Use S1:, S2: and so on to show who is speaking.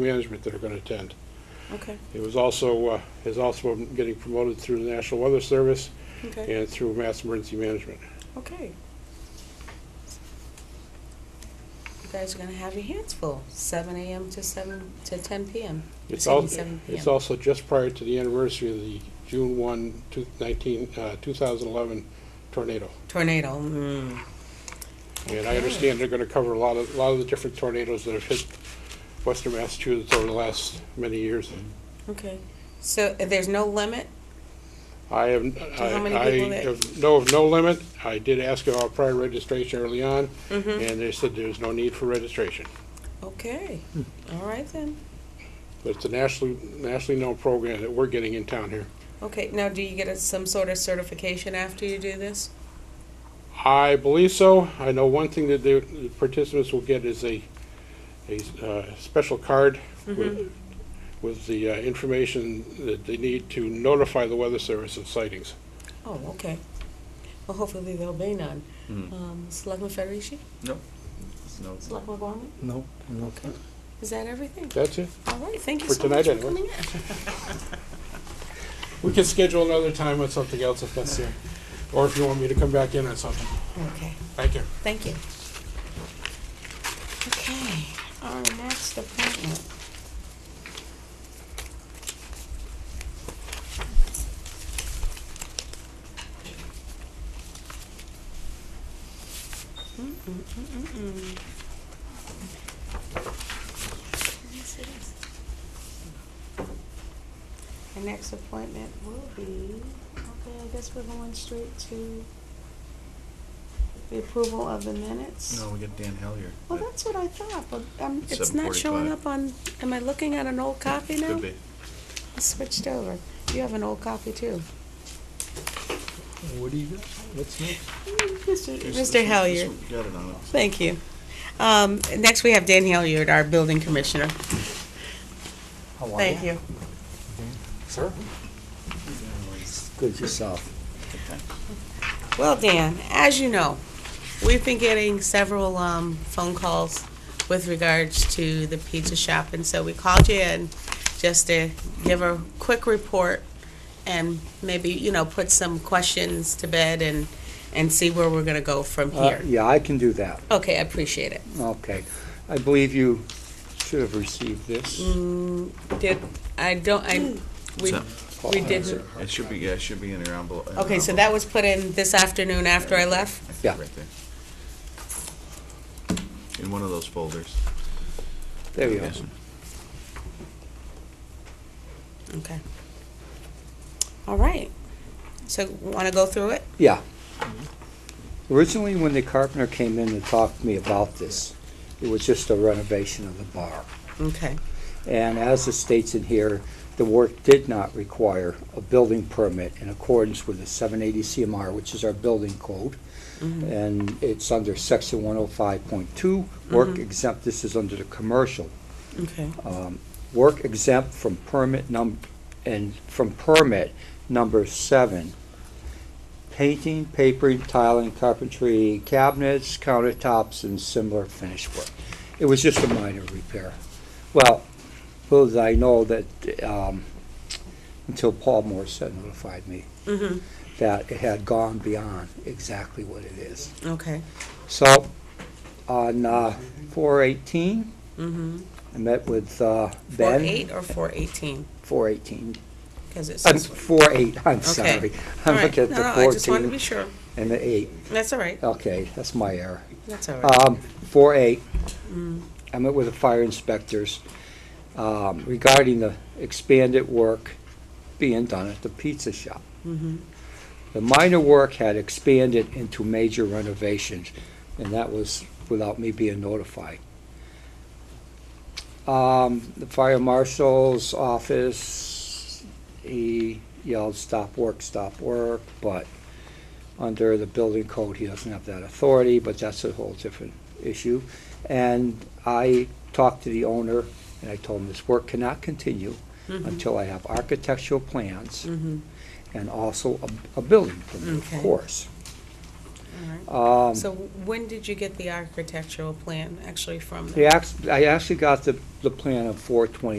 S1: management that are going to attend.
S2: Okay,
S1: He was also, uh, is also getting promoted through the National Weather Service
S2: okay,
S1: and through Mass Emergency Management.
S2: okay. You guys are gonna have your hands full, seven AM to seven, to ten PM.
S1: It's
S2: Seven,
S1: al-
S2: seven
S1: It's
S2: PM.
S1: also just prior to the anniversary of the June 1, two- 19, uh, 2011 tornado.
S2: Tornado, mm,
S1: And I understand they're going to cover a lot of, a lot of the different tornadoes that have hit western Massachusetts over the last many years.
S2: okay. So uh, there's no limit?
S1: I have,
S2: how many
S1: I I
S2: people that-
S1: have- know of no limit. I did ask about prior registration early on,
S2: Mm-hmm.
S1: and they said there's no need for registration.
S2: Okay, all right then.
S1: But it's a nationally, nationally known program that we're getting in town here.
S2: Okay, now do you get a- some sort of certification after you do this?
S1: I believe so. I know one thing that the the participants will get is a, a uh, special card with, with the uh, information that they need to notify the Weather Service of sightings.
S2: Oh, okay. Well, hopefully there'll be none.
S3: Mm.
S2: Um, Selectman Federici?
S3: No. No.
S2: Selectman Gorman?
S4: No, no.
S2: Okay. Is that everything?
S1: That's it.
S2: All right, thank you
S1: For
S2: so much for
S1: tonight,
S2: coming
S1: anyway.
S2: in.
S1: We can schedule another time on something else if necessary, or if you want me to come back in on something.
S2: Okay.
S1: Thank you.
S2: Thank you. Okay, our next appointment. Mm-mm-mm-mm-mm. Yes, it is. Our next appointment will be, okay, I guess we're going straight to the approval of the minutes.
S3: No, we got Dan Hellier.
S2: Well, that's what I thought, but um, it's not
S3: 7:45.
S2: showing up on, am I looking at an old copy now?
S3: Could be.
S2: I switched over. You have an old copy too.
S4: What do you got? What's next?
S2: Mr.
S3: Here's this
S2: Mr.
S3: one- this
S2: Hellier,
S3: one, we Got it on it.
S2: thank you. Um, Next, we have Dan Hellier, our building commissioner.
S4: How are
S2: Thank you.
S4: Sir? Good yourself.
S2: Well, Dan, as you know, we've been getting several um, phone calls with regards to the pizza shop, and so we called you in just to give a quick report and maybe, you know, put some questions to bed and, and see where we're gonna go from
S4: Uh,
S2: here.
S4: yeah, I can do that.
S2: Okay, I appreciate it.
S4: Okay. I believe you should have received this.
S2: Mm. Did, I don't, I, we,
S3: So-
S2: we didn't,
S3: It should be, yeah, it should be in your envelope. in
S2: okay, so
S3: envelope.
S2: that was put in this afternoon after I left?
S3: I think
S4: Yeah.
S3: Right there. In one of those folders.
S4: There you go.
S3: Yes.
S2: Okay. All right. So, wanna go through it?
S4: Yeah. Originally, when the carpenter came in and talked to me about this, it was just a renovation of the bar.
S2: Okay.
S4: And as it states in here, the work did not require a building permit in accordance with the 780 CMR, which is our building code.
S2: Mm-hmm.
S4: And it's under section 105.2,
S2: Mm-hmm.
S4: work exempt, this is under the commercial.
S2: Okay.
S4: Um, Work exempt from permit num, and from permit number seven. Painting, papering, tiling, carpentry, cabinets, countertops, and similar finished work. It was just a minor repair. Well, little did I know that, um, until Paul Morissette notified me
S2: Mm-hmm.
S4: that it had gone beyond exactly what it is.
S2: Okay.
S4: So, on, uh, four eighteen,
S2: Mm-hmm.
S4: I met with, uh,
S2: Four
S4: Ben.
S2: eight or four eighteen?
S4: Four eighteen,
S2: Because it
S4: I'm
S2: says.
S4: four eight, I'm
S2: Okay.
S4: sorry.
S2: All
S4: I'm
S2: right.
S4: looking at
S2: No,
S4: the
S2: no, I just wanted to be
S4: fourteen
S2: sure.
S4: and the eight.
S2: That's all right.
S4: Okay, that's my error.
S2: That's all right.
S4: Um, four eight,
S2: Mm.
S4: I met with the fire inspectors, um, regarding the expanded work being done at the pizza shop.
S2: Mm-hmm.
S4: The minor work had expanded into major renovations, and that was without me being notified. Um, the fire marshal's office, he yelled, stop work, stop work, but under the building code, he doesn't have that authority, but that's a whole different issue. And I talked to the owner, and I told him this work cannot continue until I have architectural plans
S2: Mm-hmm.
S4: and also a, a building permit,
S2: Okay.
S4: of course. Um,
S2: So when did you get the architectural plan actually from them?
S4: they act, I actually got the, the plan on four twenty